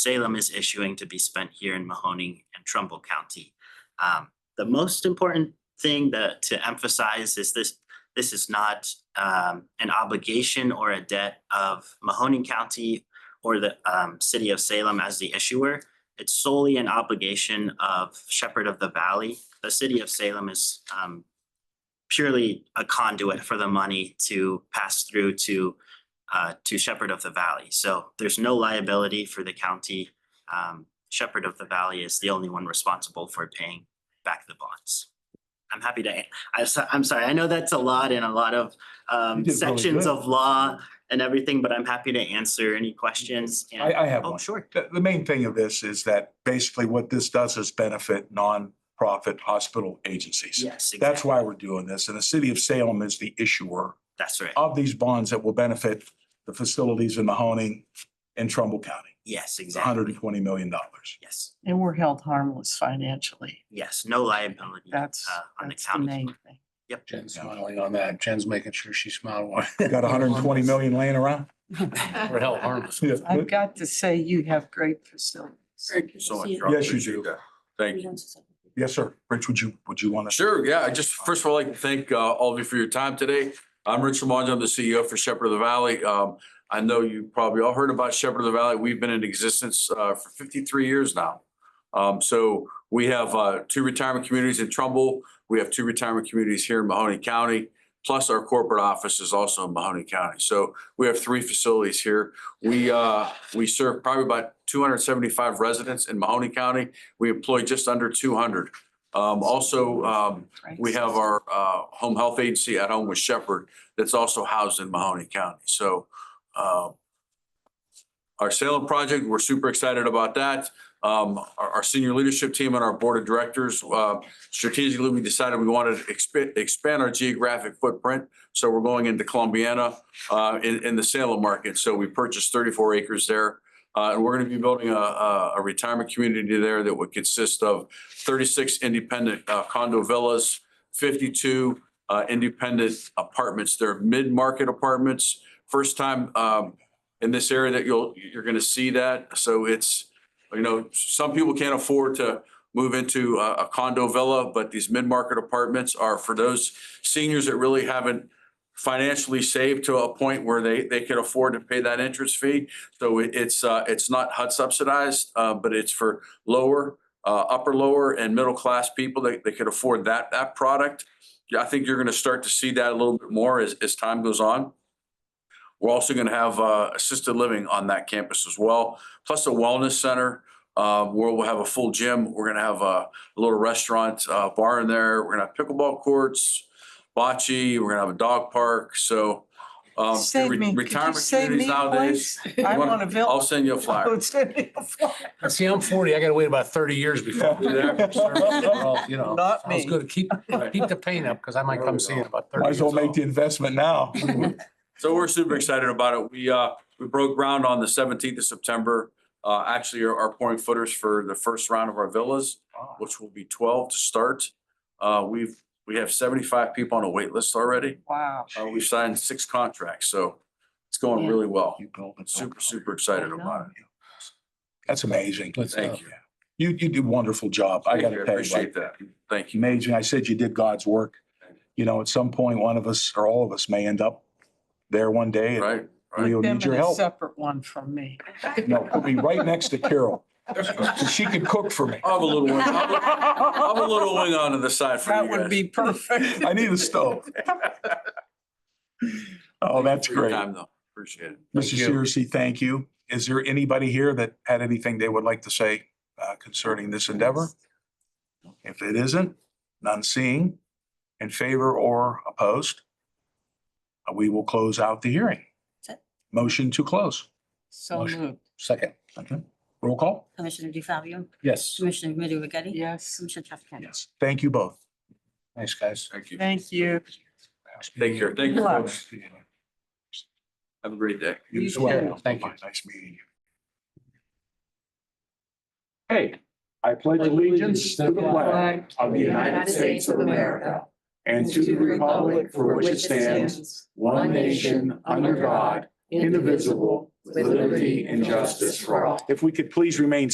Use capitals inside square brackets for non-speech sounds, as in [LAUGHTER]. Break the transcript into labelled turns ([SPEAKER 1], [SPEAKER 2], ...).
[SPEAKER 1] Salem is issuing to be spent here in Mahoning and Trumbull County. Um, the most important thing that to emphasize is this, this is not um an obligation or a debt of Mahoning County or the um city of Salem as the issuer. It's solely an obligation of Shepherd of the Valley. The city of Salem is um purely a conduit for the money to pass through to uh to Shepherd of the Valley. So there's no liability for the county. Um Shepherd of the Valley is the only one responsible for paying back the bonds. I'm happy to, I'm so- I'm sorry, I know that's a lot in a lot of um
[SPEAKER 2] You did really
[SPEAKER 1] sections
[SPEAKER 2] good.
[SPEAKER 1] of law and everything, but I'm happy to answer any questions. and-
[SPEAKER 2] I, I have
[SPEAKER 1] Oh,
[SPEAKER 2] one.
[SPEAKER 1] sure.
[SPEAKER 2] The, the main thing of this is that basically what this does is benefit nonprofit hospital agencies.
[SPEAKER 1] Yes,
[SPEAKER 2] That's
[SPEAKER 1] exactly.
[SPEAKER 2] why we're doing this. And the city of Salem is the issuer
[SPEAKER 1] That's right.
[SPEAKER 2] of these bonds that will benefit the facilities in Mahoning and Trumbull County.
[SPEAKER 1] Yes,
[SPEAKER 2] It's hundred and
[SPEAKER 1] exactly.
[SPEAKER 2] twenty million dollars.
[SPEAKER 1] Yes,
[SPEAKER 3] And we're held harmless financially.
[SPEAKER 1] yes, no liability.
[SPEAKER 3] That's,
[SPEAKER 1] uh, On the
[SPEAKER 3] that's the main
[SPEAKER 1] county.
[SPEAKER 3] thing.
[SPEAKER 4] Jen's smiling on that. Jen's making sure she smiled.
[SPEAKER 2] [LAUGHS]
[SPEAKER 4] while-
[SPEAKER 2] Got hundred and twenty million laying around?
[SPEAKER 4] We're held harmless.
[SPEAKER 2] Yeah.
[SPEAKER 3] I've got to say, you have great facilities.
[SPEAKER 5] Thank you so much. Rob.
[SPEAKER 2] Yes, you
[SPEAKER 5] Appreciate
[SPEAKER 2] do.
[SPEAKER 5] that. Thank you.
[SPEAKER 2] Yes, sir. Rich, would you, would you want [LAUGHS] to?
[SPEAKER 5] Sure, yeah, I just, first of all, I'd like to thank uh, all of you for your time today. I'm Rich Lamonge, I'm the CEO for Shepherd of the Valley. Um, I know you probably all heard about Shepherd of the Valley. We've been in existence uh, for fifty-three years now. Um, so we have uh, two retirement communities in Trumbull. We have two retirement communities here in Mahoning County. Plus our corporate office is also in Mahoning County. So we have three facilities here. We, uh, we serve probably about two hundred and seventy-five residents in Mahoning County. We employ just under two hundred. Um, also, um,
[SPEAKER 3] right?
[SPEAKER 5] we have our uh home health agency at home with Shepherd that's also housed in Mahoney County. So uh our Salem project, we're super excited about that. Um, our, our senior leadership team and our board of directors, uh, strategically, we decided we wanted to expand, expand our geographic footprint. So we're going into Columbiana, uh, in, in the Salem market. So we purchased thirty-four acres there. Uh, and we're gonna be building a, a, a retirement community there that would consist of thirty-six independent uh, condo villas, fifty-two uh, independent apartments. They're mid-market apartments. First time um, in this area that you'll, you're going to see that. So it's, you know, some people can't afford to move into a a condo villa, but these mid-market apartments are for those seniors that really haven't financially saved to a point where they, they can afford to pay that interest fee. So it- it's, uh, it's not HUD subsidized, uh, but it's for lower, uh, upper, lower and middle-class people that, that could afford that, that product. Yeah, I think you're gonna start to see that a little bit more as, as time goes on. We're also gonna have, uh, assisted living on that campus as well, plus a wellness center, uh, where we'll have a full gym. We're gonna have a little restaurant, uh, bar in there. We're gonna have pickleball courts, bocce, we're gonna have a dog park, so. um,
[SPEAKER 3] Save
[SPEAKER 5] re-
[SPEAKER 3] me, could you
[SPEAKER 5] retirement
[SPEAKER 3] save me,
[SPEAKER 5] communities nowadays.
[SPEAKER 3] please? I [LAUGHS]
[SPEAKER 5] You [LAUGHS]
[SPEAKER 3] want a
[SPEAKER 5] I'll
[SPEAKER 3] villa.
[SPEAKER 5] send you
[SPEAKER 3] [LAUGHS]
[SPEAKER 5] a flyer.
[SPEAKER 3] Send me a villa.
[SPEAKER 4] [LAUGHS] See, I'm forty. I gotta wait about thirty years before.
[SPEAKER 2] [LAUGHS]
[SPEAKER 4] I'm there. You know,
[SPEAKER 3] Not me.
[SPEAKER 4] sounds good. Keep,
[SPEAKER 3] Oh,
[SPEAKER 4] keep the pain up because I might come see you in about thirty
[SPEAKER 2] Might as
[SPEAKER 4] years.
[SPEAKER 2] well make the investment now.
[SPEAKER 3] [LAUGHS]
[SPEAKER 5] So we're super excited about it. We, uh, we broke ground on the seventeenth of September. Uh, actually are, are pouring footers for the first round of our villas, which will be twelve to start. Uh, we've, we have seventy-five people on a wait list already.
[SPEAKER 3] Wow.
[SPEAKER 5] Uh, we've signed six contracts, so it's going
[SPEAKER 3] Yeah.
[SPEAKER 5] really well.
[SPEAKER 2] You build it.
[SPEAKER 5] Super, super excited about it.
[SPEAKER 2] That's amazing.
[SPEAKER 4] Let's uh, go.
[SPEAKER 5] Thank you.
[SPEAKER 2] You, you did a wonderful job. I
[SPEAKER 5] Thank you.
[SPEAKER 2] gotta tell you,
[SPEAKER 5] Appreciate
[SPEAKER 2] like,
[SPEAKER 5] that. Thank you.
[SPEAKER 2] amazing. I said you did God's work. You know, at some point, one of us or all of us may end up there one day. and
[SPEAKER 5] Right, right.
[SPEAKER 2] We'll
[SPEAKER 3] Them
[SPEAKER 2] need
[SPEAKER 3] in
[SPEAKER 2] your
[SPEAKER 3] a
[SPEAKER 2] help.
[SPEAKER 3] separate one from me.
[SPEAKER 2] No, we'll be right next to Carol. So She could cook for me.
[SPEAKER 5] I'll have a little, wing- I'll have [LAUGHS] I'll have a little wing on to the side for
[SPEAKER 3] That
[SPEAKER 5] you
[SPEAKER 3] would
[SPEAKER 5] guys.
[SPEAKER 6] [LAUGHS]
[SPEAKER 3] be perfect.
[SPEAKER 2] I need a
[SPEAKER 5] [LAUGHS]
[SPEAKER 2] stove. Oh, that's
[SPEAKER 5] For your
[SPEAKER 2] great.
[SPEAKER 5] Time though. Appreciate it.
[SPEAKER 2] Mr.
[SPEAKER 4] you.
[SPEAKER 2] Searcy, thank you. Is there anybody here that had anything they would like to say uh, concerning this endeavor? If it isn't, none seeing, in favor or opposed, uh, we will close out the hearing.
[SPEAKER 7] That's it.
[SPEAKER 2] Motion to close.
[SPEAKER 3] So moved.
[SPEAKER 4] Second.
[SPEAKER 2] Okay. Roll call?
[SPEAKER 7] Commissioner DeFabio,
[SPEAKER 4] Yes.
[SPEAKER 7] Commissioner Middy Regetti.
[SPEAKER 3] [LAUGHS] Yes.
[SPEAKER 7] Commissioner Traficant.
[SPEAKER 2] Yes. Thank you both.
[SPEAKER 4] Thanks, guys.
[SPEAKER 5] Thank you.
[SPEAKER 3] Thank you.
[SPEAKER 5] Take care. Thank you,
[SPEAKER 3] Good luck.
[SPEAKER 5] folks. Have a great day.
[SPEAKER 2] You
[SPEAKER 3] You
[SPEAKER 2] as well.
[SPEAKER 4] too. Thank you.
[SPEAKER 2] Nice meeting you.
[SPEAKER 6] Hey, I pledge allegiance to the flag of the United States of America and to the republic for which it stands, one nation, under God, indivisible,
[SPEAKER 2] with liberty and justice for all. If we could please remain